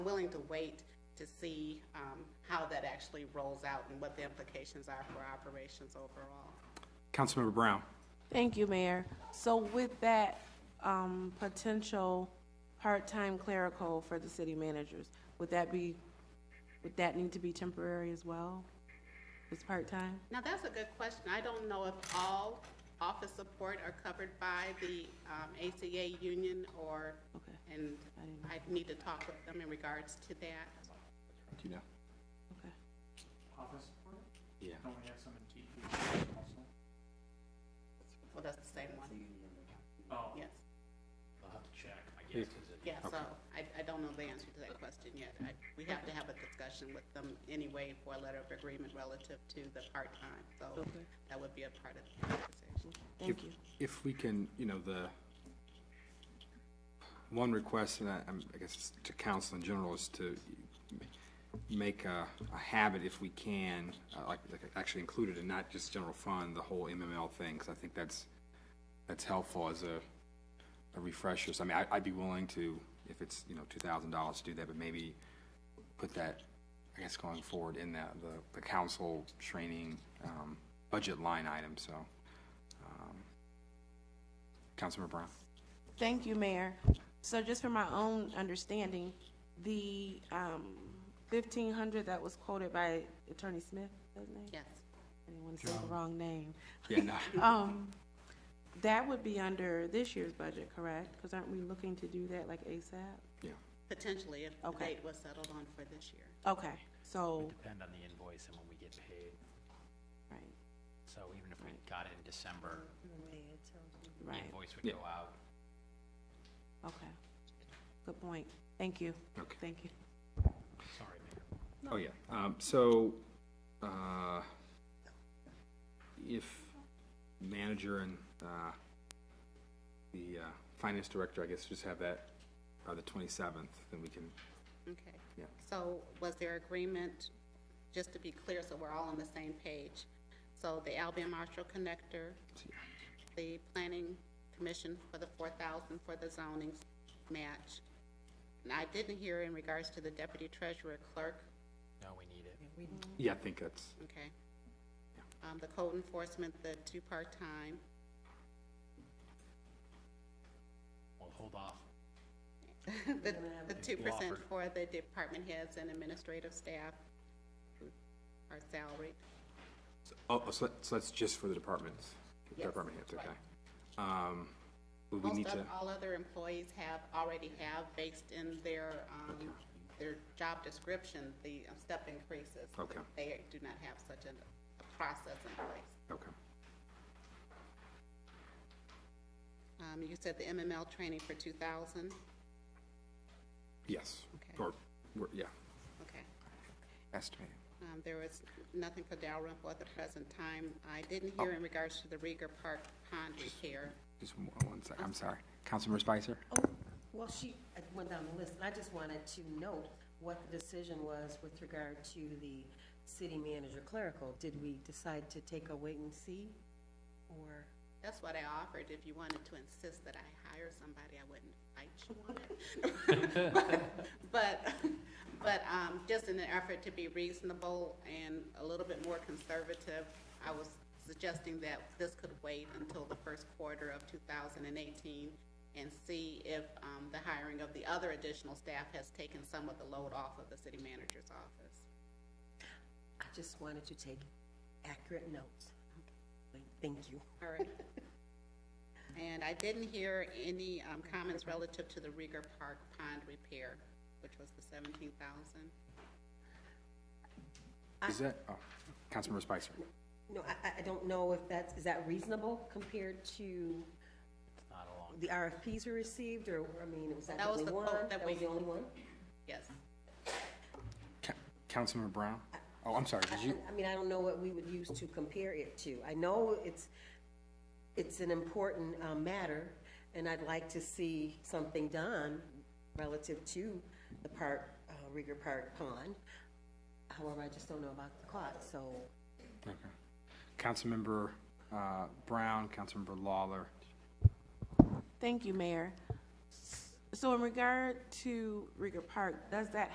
willing to wait to see um, how that actually rolls out and what the implications are for operations overall. Councilmember Brown. Thank you, Mayor. So with that, um, potential part-time clerical for the city managers, would that be, would that need to be temporary as well? It's part-time? Now, that's a good question. I don't know if all office support are covered by the um, ACA union or, Okay. and I didn't I need to talk with them in regards to that. You know. Okay. office support? Yeah. Don't we have some in TP also? Well, that's the same one. Oh, Yes. I'll have to check, I guess, is it? Yeah, so I, I don't know the answer to that question yet. I, we have to have a discussion with them anyway for a letter of agreement relative to the part-time. So Okay. that would be a part of the conversation. Thank If- you. If we can, you know, the, one request, and I, I'm- I guess it's to council in general, is to make a, a habit if we can, uh, like, like actually include it and not just general fund, the whole MML thing, 'cause I think that's, that's helpful as a, a refresher. So I mean, I, I'd be willing to, if it's, you know, two thousand dollars to do that, but maybe put that, I guess, going forward in that, the, the council training, um, budget line item, so. um, Councilmember Brown? Thank you, Mayor. So just for my own understanding, the, um, fifteen hundred that was quoted by Attorney Smith, his name? Yes. I didn't want to say the wrong name. Yeah, no, Um, that would be under this year's budget, correct? Because aren't we looking to do that like ASAP? yeah. Potentially, if the Okay. date was settled on for this year. Okay, so, depend on the invoice and when we get paid. right, So even if we got it in December, the right, invoice would Yeah. go out. okay. Good point. Thank you. Okay. Thank you. Sorry, Mayor. Oh, yeah. Um, so, uh, if manager and, uh, the, uh, finance director, I guess, just have that by the twenty-seventh, then we can, Okay. Yeah. So was there agreement, just to be clear, so we're all on the same page? So the Albion Marshall Connector, the Planning Commission for the four thousand for the zoning match. And I didn't hear in regards to the Deputy Treasurer Clerk, No, we need it. yeah, I think that's, okay? Um, the code enforcement, the two part-time, We'll hold off. the, the two percent Wofford. for the department heads and administrative staff who are salaried. oh, so, that- so that's just for the departments? Yes, Department heads, right. okay. Um, would we need Most to, of, all other employees have, already have based in their, um, their job description, the uh, step increases. Okay. They do not have such a, a process in place. okay. Um, you said the MML training for two thousand, Yes. Okay. Or, we're- yeah, okay. estimated. Um, there was nothing for Dalrymple at the present time. I didn't hear in regards to the Rieger Park pond repair. Oh. Just one one sec, I'm sorry. Councilmember Spicer? Oh, well, she uh, went down the list, and I just wanted to note what the decision was with regard to the city manager clerical. Did we decide to take a wait and see, or? That's what I offered. If you wanted to insist that I hire somebody, I wouldn't fight you on it. But, but, um, just in an effort to be reasonable and a little bit more conservative, I was suggesting that this could wait until the first quarter of two thousand and eighteen and see if, um, the hiring of the other additional staff has taken some of the load off of the city manager's office. I just wanted to take accurate notes. Thank you. All right. And I didn't hear any um, comments relative to the Rieger Park pond repair, which was the seventeen thousand. Is that, oh, Councilmember Spicer? No, I- I, I don't know if that's, is that reasonable compared to It's not a long, the RFPs we received, or, I mean, was that That the was only the one? quote that That was we- the only one? Yes. Ca- Councilmember Brown? Oh, I'm sorry, did you, I mean, I don't know what we would use to compare it to. I know it's, it's an important uh, matter, and I'd like to see something done relative to the park, uh, Rieger Park Pond. However, I just don't know about the clock, so okay. Councilmember uh, Brown, Councilmember Lawler, Thank you, Mayor. So in regard to Rieger Park, does that